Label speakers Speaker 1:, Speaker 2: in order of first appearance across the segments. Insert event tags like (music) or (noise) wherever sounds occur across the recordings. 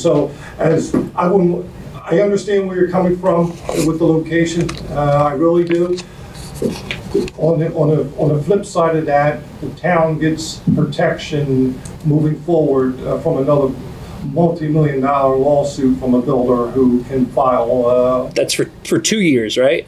Speaker 1: So as, I wouldn't, I understand where you're coming from with the location, uh, I really do. On the, on the, on the flip side of that, the town gets protection moving forward uh, from another multi-million dollar lawsuit from a builder who can file, uh.
Speaker 2: That's for, for two years, right?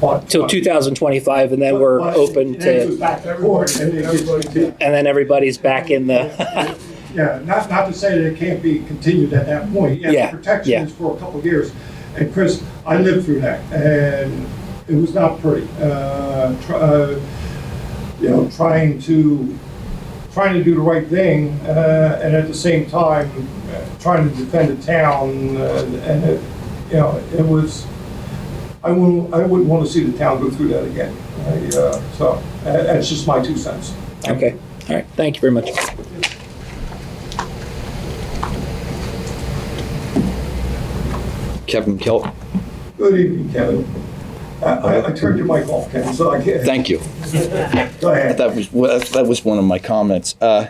Speaker 1: what-
Speaker 2: Till 2025, and then we're
Speaker 1: But-
Speaker 2: open
Speaker 1: and it goes
Speaker 2: to,
Speaker 1: back and forth, and it gets-
Speaker 2: and then everybody's back in the.
Speaker 1: (laughs) Yeah, not, not to say that it can't be continued at that point. the
Speaker 2: Yeah,
Speaker 1: Protection
Speaker 2: yeah.
Speaker 1: is for a couple of years. And Chris, I lived through that and it was not pretty. Uh, tr- uh, You know, trying to, trying to do the right thing uh, and at the same time, uh, trying to defend the town. uh, And, it- you know, it was, I wouldn't, I wouldn't want to see the town go through that again. I, uh, So uh, that's just my two cents.
Speaker 2: (laughs) okay. All right. Thank you very much.
Speaker 3: Kevin Kilt,
Speaker 1: Good evening, Kevin. I- I I turned your mic off, Kevin, so I can't.
Speaker 3: thank you.
Speaker 1: Go ahead.
Speaker 3: That was well, that was one of my comments. Uh,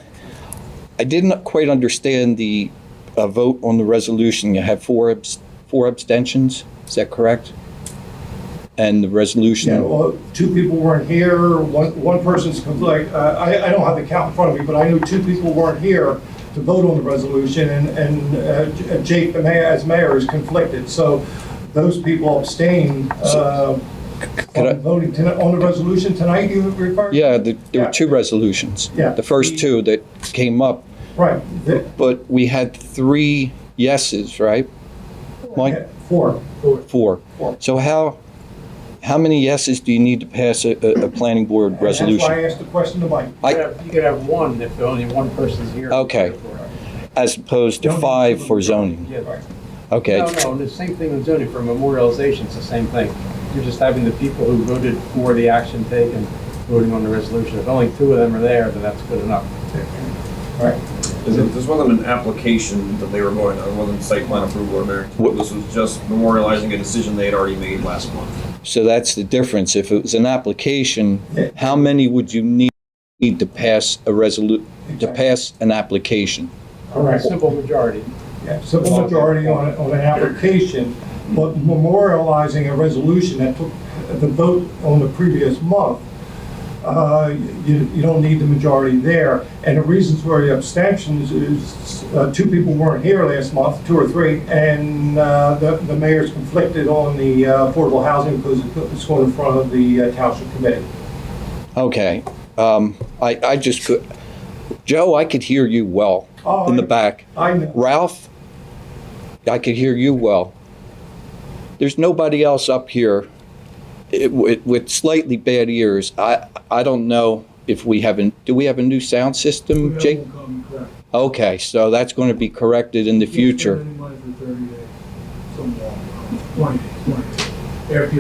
Speaker 3: I didn't quite understand the uh, vote on the resolution. You had four abs- four abstentions. Is that correct? And the resolution.
Speaker 1: Yeah, well, two people weren't here, one one person's complete. uh, I I don't have the count in front of me, but I knew two people weren't here to vote on the resolution, and- and uh, J- Jake, the mayor, as mayor, is conflicted. So those people abstained uh,
Speaker 3: Could I-
Speaker 1: on voting tonight, on the resolution tonight, you referred?
Speaker 3: Yeah, the, there
Speaker 1: Yeah.
Speaker 3: were two resolutions.
Speaker 1: Yeah.
Speaker 3: The first two that came up,
Speaker 1: Right, the-
Speaker 3: but we had three yeses, right? Mike,
Speaker 1: four.
Speaker 3: four.
Speaker 1: Four.
Speaker 3: So how how many yeses do you need to pass a, a, a planning board resolution?
Speaker 1: That's why I asked the question to Mike.
Speaker 3: I-
Speaker 4: You could have- you could have one if only one person's here.
Speaker 3: Okay. as opposed to
Speaker 1: Zoning.
Speaker 3: five for zoning.
Speaker 4: Yeah.
Speaker 1: Right.
Speaker 3: Okay,
Speaker 4: No, no, and the same thing with zoning, for memorialization, it's the same thing. You're just having the people who voted for the action taken, voting on the resolution. If only two of them are there, then that's good enough.
Speaker 1: Right.
Speaker 5: Is it, this wasn't an application that they were going on, it wasn't site plan approval or
Speaker 3: What-
Speaker 5: anything. This was just memorializing a decision they had already made last month.
Speaker 3: so that's the difference. If it was an application,
Speaker 1: Yeah.
Speaker 3: how many would you need need to pass a resolu, to pass an application?
Speaker 1: Correct.
Speaker 4: Simple majority.
Speaker 1: Yeah, simple majority on, a- on an application, but memorializing a resolution that took the vote on the previous month, uh, you, you don't need the majority there. And the reasons for the abstentions is, uh, two people weren't here last month, two or three, and, uh, the, the mayor's conflicted on the uh, affordable housing because it's going in front of the uh, township committee.
Speaker 3: Okay, um, I, I just could, Joe, I could hear you well
Speaker 1: Oh,
Speaker 3: in the
Speaker 1: I-
Speaker 3: back.
Speaker 1: I know,
Speaker 3: Ralph, I could hear you well. There's nobody else up here it- with with slightly bad ears. I, I don't know if we have, a- do we have a new sound system, Jake?
Speaker 1: uh,
Speaker 3: Okay, so that's going to be corrected in the future.
Speaker 6: After you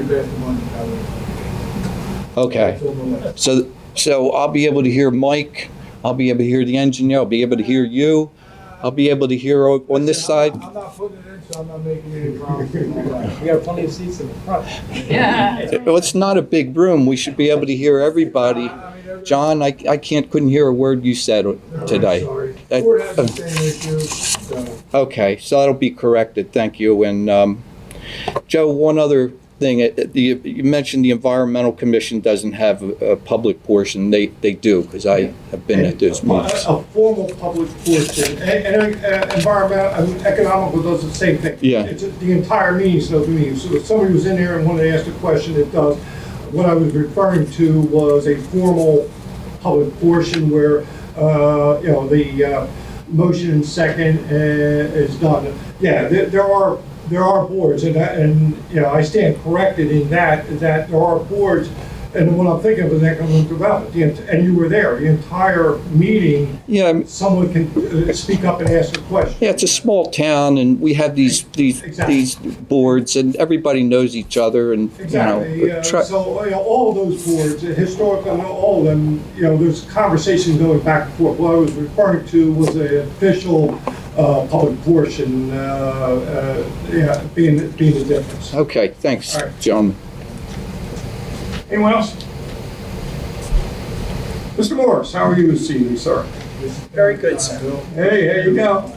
Speaker 6: pass the money, I would.
Speaker 3: Okay, so, so I'll be able to hear Mike, I'll be able to hear the engineer, I'll be able to hear you, I'll be able to hear o- on this side.
Speaker 6: I'm not putting it in, so I'm not making any promises.
Speaker 4: We got plenty of seats in the front.
Speaker 3: Well, it's not a big room, we should be able to hear everybody. John, I, I can't, couldn't hear a word you said (laughs) today. um,
Speaker 6: Sorry.
Speaker 3: That-
Speaker 6: Ford has the same issue, so.
Speaker 3: Okay, so that'll be corrected, thank you. And um, Joe, one other thing, uh, you you mentioned the Environmental Commission doesn't have a a public portion, they, they do, because I have been at those meetings.
Speaker 1: A a formal public portion, and, and uh, environmental, I mean, economical does the same thing.
Speaker 3: Yeah.
Speaker 1: It's the entire meeting's no meeting, so if somebody was in there and wanted to ask a question, it does. What I was referring to was a formal public portion where, uh, you know, the, uh, motion and second uh, is done. Yeah, there, there are, there are boards, and, I- and, you know, I stand corrected in that, that there are boards, and the one I'm thinking of is economic development, The ent- and you were there, the entire meeting,
Speaker 3: Yeah, I'm-
Speaker 1: someone can uh, speak up and ask a question.
Speaker 3: yeah, it's a small town, and we have these, these,
Speaker 1: Exactly.
Speaker 3: these boards, and everybody knows each other, and, you
Speaker 1: Exactly,
Speaker 3: know.
Speaker 1: uh,
Speaker 3: try-
Speaker 1: so, you know, all of those boards, historical, all of them, you know, there's conversation going back and forth. What I was referring to was a official, uh, public portion, uh, uh, yeah, being, being the difference.
Speaker 3: Okay, thanks,
Speaker 1: All right.
Speaker 3: gentlemen.
Speaker 1: Anyone else? Mr. Morris, how are you this evening, sir?
Speaker 6: Very good, sir.
Speaker 1: Hey, there you go.